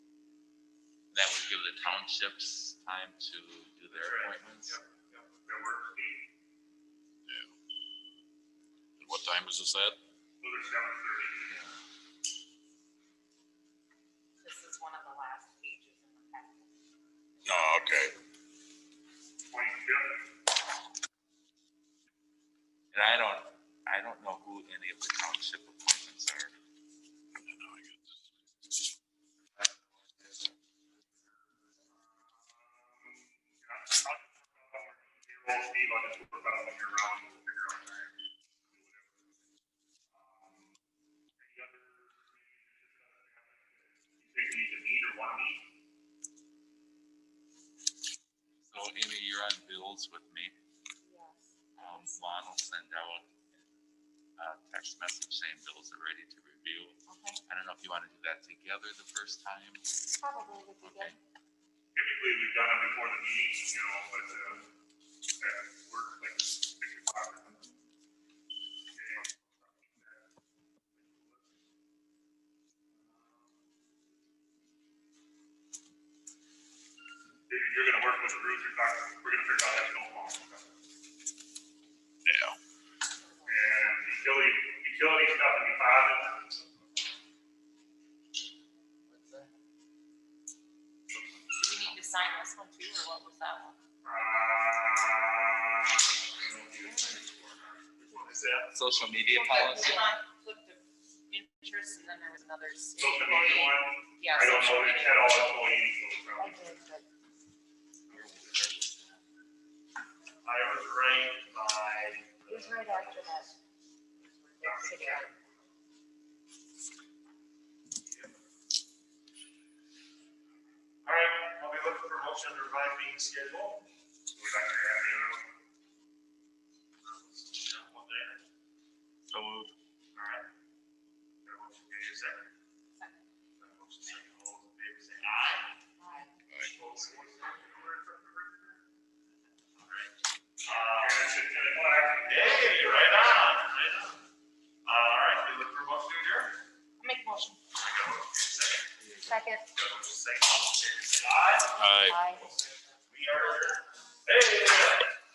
townships time to do their appointments. That works for me, Yeah. And what time is this at? whether seven thirty. This is one of the last pages in the packet. Oh, okay. Twenty-fifth, And I don't, I don't know who any of the township appointments are. I'll Steve, I'll just work out when you're around, we'll figure out time. Any other? You think you need to meet or want to meet? So Amy, you're on bills with me. Yes. Um, Lon will send out a text message saying bills are ready to review. Okay, I don't know if you want to do that together the first time. probably would be good. Okay. Typically, we've done it before the meeting, you know, but, uh, that works like six o'clock. You're, you're gonna work with Bruce, you're talking, we're gonna figure out that snow pump. Yeah. And utility, utility stuff and deposits, Do we need to sign this one too, or what was that one? uh, I don't know if you- Which one is that? Social media policy. Conflict of interest, and then there was another. Social media one? Yeah. I don't know, social they media. had all employees. I did, but I was ranked by. it was right after that. All right, I'll be looking for a motion to revise meeting schedule. Would like to have you. One day. So moved. All right. Got a motion, can I hear a second? Got a motion, second, all those in favor say aye. Aye. Opposed, say no. All right. Uh, Hey, right on, right on. Uh, all right, you look for a motion to adjourn? Make motion. I got a motion, second. Second. Got a motion, second, all those in favor say aye. Aye. Aye. We are, hey.